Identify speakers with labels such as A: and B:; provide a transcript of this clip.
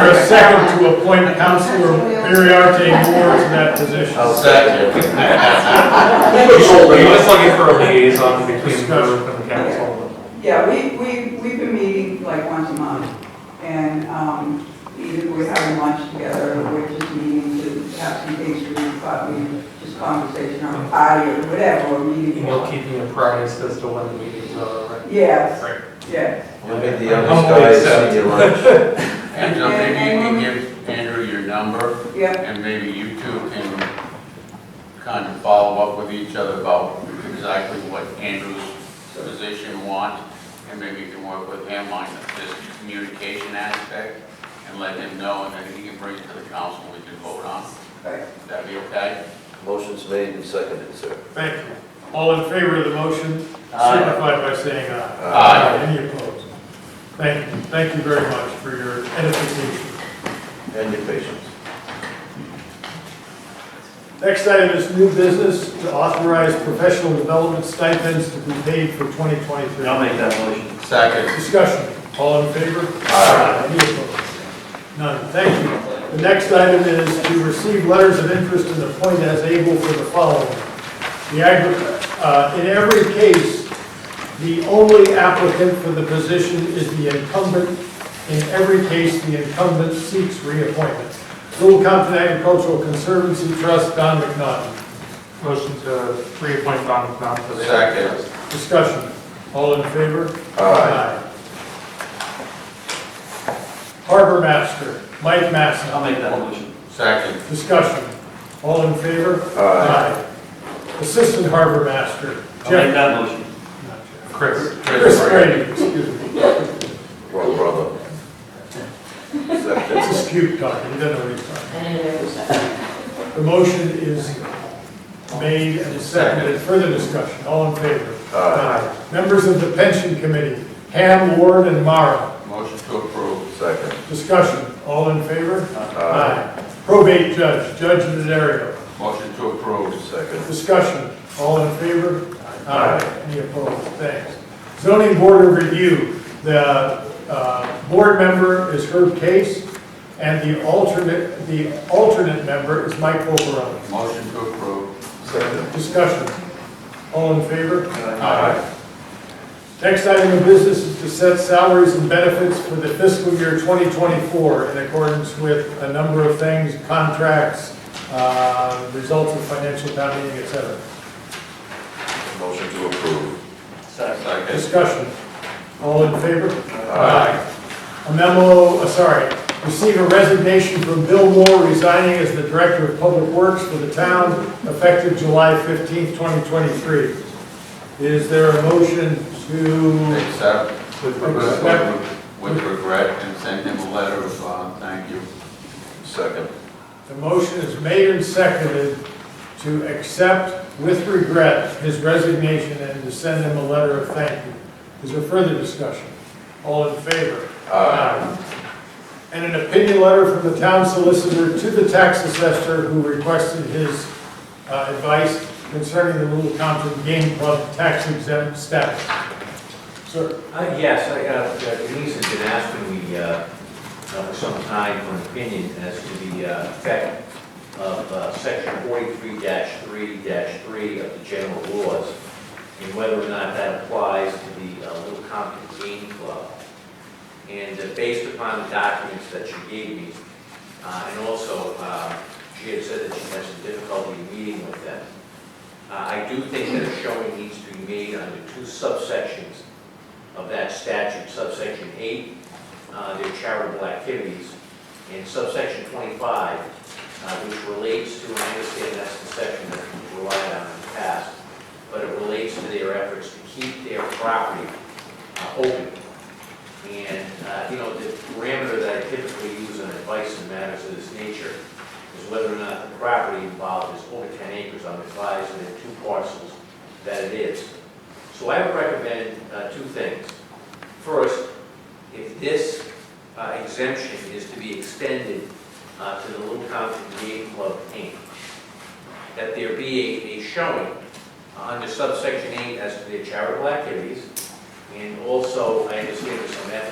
A: Mayor to appoint Counselor Ariarte Moore to that position.
B: Second.
C: I was looking for a liaison between the group and the council.
D: Yeah, we, we, we've been meeting like once a month, and, um, either we're having lunch together, or we're just meeting to have some things to do, but we, just conversation on a party or whatever, or meeting.
C: And you'll keep me apprised as to when the meetings are, right?
D: Yes,
C: Right.
D: yes,
B: You'll be the youngest guy to see you lunch.
E: Angela, maybe you can give Andrew your number,
D: yeah,
E: and maybe you two can kind of follow up with each other about exactly what Andrew's position wants, and maybe you can work with him on this communication aspect, and let him know, and then he can bring it to the council, we can vote on it.
D: right.
E: Would that be okay?
B: Motion's made and seconded, sir.
A: Thank you. All in favor of the motion,
E: Aye.
A: signify by saying aye.
E: Aye.
A: Any opposed? Thank you, thank you very much for your edification.
B: And your patience.
A: Next item is new business to authorize professional development stipends to be paid for 2023.
F: make that motion.
E: Second.
A: Discussion, all in favor? Aye. Any opposed? None, thank you. The next item is to receive letters of interest and appoint as able for the following. The, agri- uh, in every case, the only applicant for the position is the incumbent. In every case, the incumbent seeks reappointment. Little Compton Agricultural Conservancy Trust, Don McNaughton.
C: Motion to reappoint Don McNaught to the.
E: Second.
A: Discussion, all in favor?
B: Aye.
A: Harbor Master, Mike Masson.
F: I'll make that motion.
E: Second.
A: Discussion. All in favor?
B: Aye.
A: Aye. Assistant Harbor Master,
F: I'll make
A: Jeff.
F: that motion.
A: not Jeff.
C: Chris.
A: Chris Brady, excuse me.
B: Well, brother. Second.
A: This is cute talking, he doesn't know what he's talking. about. The motion is made and seconded. Further discussion. All in favor?
B: Aye.
A: Members of the Pension Committee, Ham, Ward, and Mara.
E: Motion to approve.
B: Second.
A: Discussion. All in favor? Aye. Probate Judge, Judge Nazario.
E: Motion to approve.
B: Second.
A: Discussion, all in favor? Aye. Any opposed? Thanks. Zoning Board of Review, the uh, board member is Herb Case, and the alternate, the alternate member is Mike Oberon.
E: Motion to approve.
B: Second.
A: Discussion, all in favor?
B: Aye.
A: Next item of business is to set salaries and benefits for the fiscal year 2024 in accordance with a number of things, contracts, uh, results of financial town meeting, et cetera.
B: Motion to approve.
F: Second.
E: Second.
A: Discussion. All in favor? A memo, uh, sorry, receive a resignation from Bill Moore resigning as the Director of Public Works for the town effective July 15th, 2023. Is there a motion to,
E: Accept.
C: With
A: regret.
E: With regret, and send him a letter of, uh, thank you.
B: Second.
A: the motion is made and seconded to accept with regret his resignation and to send him a letter of thank you. Is there further discussion? All in favor?
B: Aye.
A: And an opinion letter from the town solicitor to the tax assessor who requested his uh, advice concerning the Little Compton Game Club tax exempt status. Sir,
G: Uh, Yes, I, uh, Denise has been asking me uh, uh, for some time for an opinion as to the uh, effect of uh, section forty-three three three of the general laws and whether or not that applies to the uh, Little Compton Game Club. And uh, based upon the documents that she gave me, uh, and also uh, she had said that she had some difficulty meeting with them, uh, I do think that a showing needs to be made under two subsections of that statute, subsection eight, uh, their charitable activities, and subsection twenty-five, uh, which relates to, and I understand that's the section that we relied on in the past, but it relates to their efforts to keep their property uh, open. And, uh, you know, the parameter that I typically use on advice in matters of this nature is whether or not the property involved is over ten acres, I'm advised in two parcels that it is. So I would recommend uh, two things. First, if this uh, exemption is to be extended uh, to the Little Compton Game Club Inc., that there be a- a showing uh, under subsection 8 as to their charitable activities, and also, I understand there's some ethics